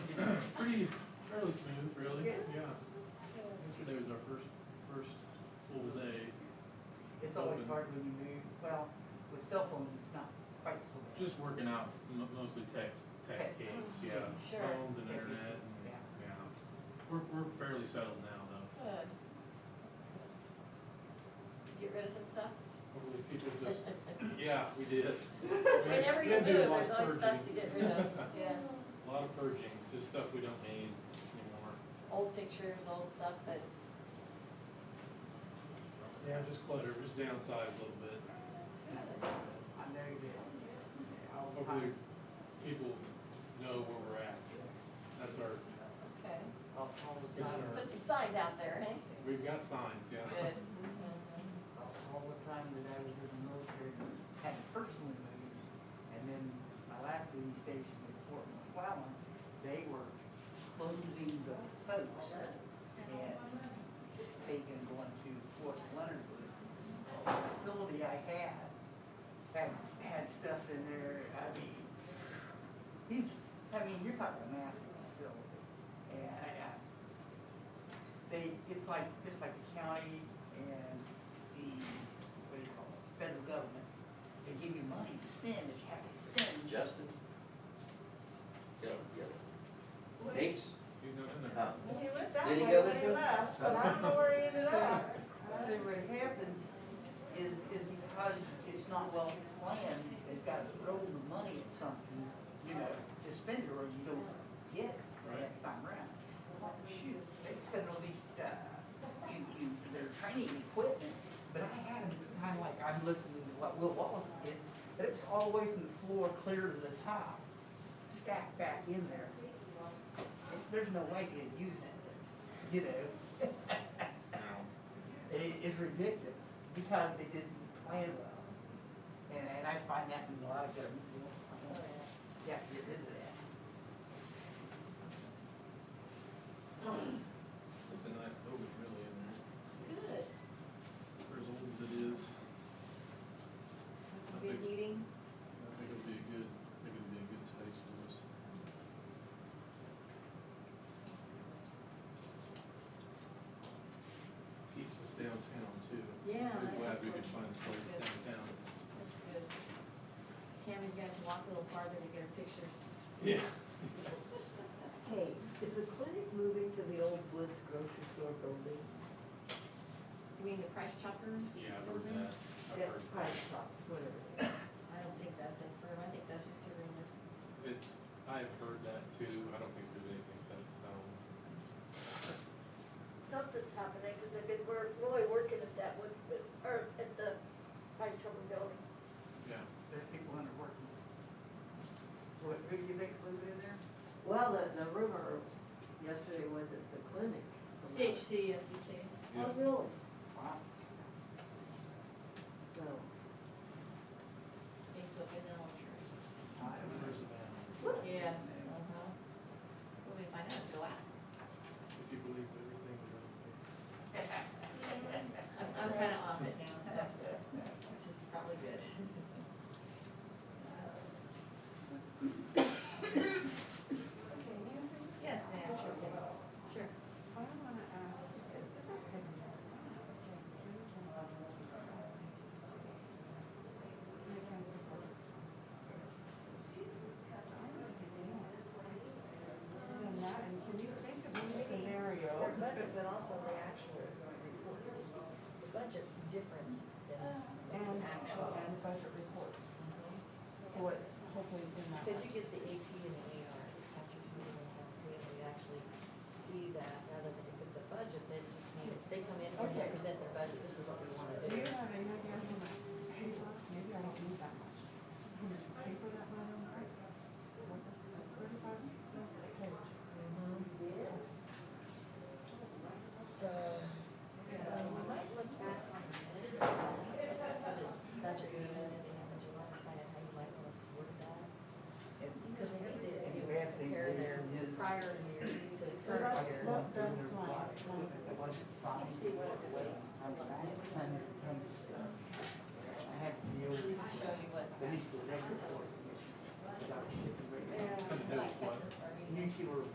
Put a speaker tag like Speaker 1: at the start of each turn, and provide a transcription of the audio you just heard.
Speaker 1: it's always
Speaker 2: open.
Speaker 1: hard when you move, well, with cell phones, it's not quite so bad.
Speaker 2: Just working out m- mostly tech, tech
Speaker 1: Tech.
Speaker 2: gigs, yeah.
Speaker 3: Sure.
Speaker 2: Phones and
Speaker 1: Yeah.
Speaker 2: internet and,
Speaker 1: Yeah.
Speaker 2: yeah. We're, we're fairly settled now though.
Speaker 3: Good. Get rid of some stuff?
Speaker 2: Hopefully people just, yeah, we did. We-
Speaker 3: Whenever
Speaker 2: we
Speaker 3: you
Speaker 2: had to do a
Speaker 3: move,
Speaker 2: lot of
Speaker 3: there's always stuff
Speaker 2: purging.
Speaker 3: to get rid of, yeah.
Speaker 2: A lot of purging, just stuff we don't need anymore.
Speaker 3: Old pictures, old stuff that,
Speaker 2: Yeah, just clutter, just downsize a little bit.
Speaker 1: I know that, yeah, all the
Speaker 2: Hopefully
Speaker 1: time,
Speaker 2: people know where we're at. That's our,
Speaker 3: okay.
Speaker 1: all, all the
Speaker 2: Yes,
Speaker 1: time,
Speaker 2: sir.
Speaker 3: Put some signs out there, hey?
Speaker 2: we've got signs, yeah.
Speaker 3: Good.
Speaker 1: all all the time that I was in the military, had personally moved. And then my last duty station at Fort McClellan, they were closing the post and taking going to Fort Leonard. The Facility I had, had, had stuff in there, I mean, huge, I mean, you're talking a massive facility. And I, I, they, it's like, just like the county and the, what do you call it, federal government, they give you money to spend, it's how you spend.
Speaker 4: Justin? Yeah, yeah. Nate's?
Speaker 2: He's not in
Speaker 3: Oh.
Speaker 2: there.
Speaker 4: Uh,
Speaker 5: He went that
Speaker 4: Did he
Speaker 5: way
Speaker 4: go
Speaker 5: when
Speaker 4: this
Speaker 5: he
Speaker 4: way?
Speaker 5: left, but I don't know where he ended up.
Speaker 1: So what happens is, is because it's not well planned, they've got to throw the money at something, you know, to spend it or you don't get it the
Speaker 2: Right.
Speaker 1: next time around. Shoot, they spend all these, uh, you, you, their training equipment, but I had it kind of like, I'm listening to what Will Wallace did, but it was all the way from the floor clear to the top, stacked back in there. There's no way they'd use it, you know?
Speaker 2: No.
Speaker 1: It is ridiculous because they didn't plan well. And, and I find that in a lot of government, you don't
Speaker 6: Oh,
Speaker 1: plan well. You have to get rid of that.
Speaker 2: It's a nice building really in there.
Speaker 3: Good.
Speaker 2: For as old as it is,
Speaker 3: That's a good meeting.
Speaker 2: I think it'll be a good, I think it'll be a good space for us. Keeps us downtown too.
Speaker 3: Yeah.
Speaker 2: We're glad we could
Speaker 3: that's
Speaker 2: find a place
Speaker 3: Good.
Speaker 2: downtown.
Speaker 3: good. Tammy's gonna have to walk a little farther to get her pictures.
Speaker 2: Yeah.
Speaker 6: Hey, is the clinic moving to the old Woods grocery store building?
Speaker 3: You mean the Price Chopper?
Speaker 2: Yeah, I've heard that. I've
Speaker 6: That
Speaker 2: heard
Speaker 6: price
Speaker 2: that.
Speaker 6: shop, whatever. it is.
Speaker 3: I don't think that's it for him. I think that's just a rumor.
Speaker 2: It's, I've heard that too. I don't think there's anything set in stone.
Speaker 5: Something's happening, because they've been work, really working at that one, but- or at the Pine Trouble Building.
Speaker 2: Yeah.
Speaker 1: There's people under working. What, who do you think's living in there?
Speaker 6: Well, the, the rumor yesterday was at the clinic.
Speaker 3: CHC, SCK.
Speaker 2: Yeah.
Speaker 6: Oh, really?
Speaker 1: Wow.
Speaker 6: So,
Speaker 3: Facebook and then I'll share it.
Speaker 1: I don't know.
Speaker 3: Yes. Uh-huh. We'll be finding out if they'll ask.
Speaker 2: If you believe everything we're doing.
Speaker 3: I'm, I'm kinda off it now, so, which is probably good.
Speaker 7: Okay, Nancy,
Speaker 3: Yes, ma'am, sure, sure.
Speaker 7: what I wanna ask is, is this is been, I wanna ask you, can you turn on this for us? My council board. I don't think it is. Other than that, and can you think of any scenario?
Speaker 3: Our budget, but also the actual reports. The budget's different Uh, than
Speaker 7: And,
Speaker 3: the actual.
Speaker 7: and budget reports, so it's hopefully in that.
Speaker 3: Because you get the AP and the AR, accounts receivable, accounts payable, you actually see that rather than if it's a budget, that just means they come in and they
Speaker 7: Okay.
Speaker 3: present their budget, this is what we want to
Speaker 7: Do
Speaker 3: do.
Speaker 7: you have any idea how much paper, maybe I don't need that much, how much paper that went on there? What is, that's thirty-five cents a page.
Speaker 3: So, um, we might look back on this, uh, budget meeting that they have in July, kind of how you might want to word that. Because they need to,
Speaker 1: And
Speaker 3: you
Speaker 1: you have
Speaker 3: have to
Speaker 1: things that
Speaker 3: compare their
Speaker 1: is-
Speaker 3: prior year to current
Speaker 7: Well,
Speaker 3: year.
Speaker 7: that's- Look, that's mine.
Speaker 1: It wasn't
Speaker 3: Let
Speaker 1: signed.
Speaker 3: me see what it would be.
Speaker 1: I was like, I had tons and tons of stuff. I had to deal with
Speaker 3: I'll show you what.
Speaker 1: the municipal record board. commission, because I was shipping right
Speaker 7: Yeah.
Speaker 2: Had to do
Speaker 1: now.
Speaker 2: with what?
Speaker 1: Nuclear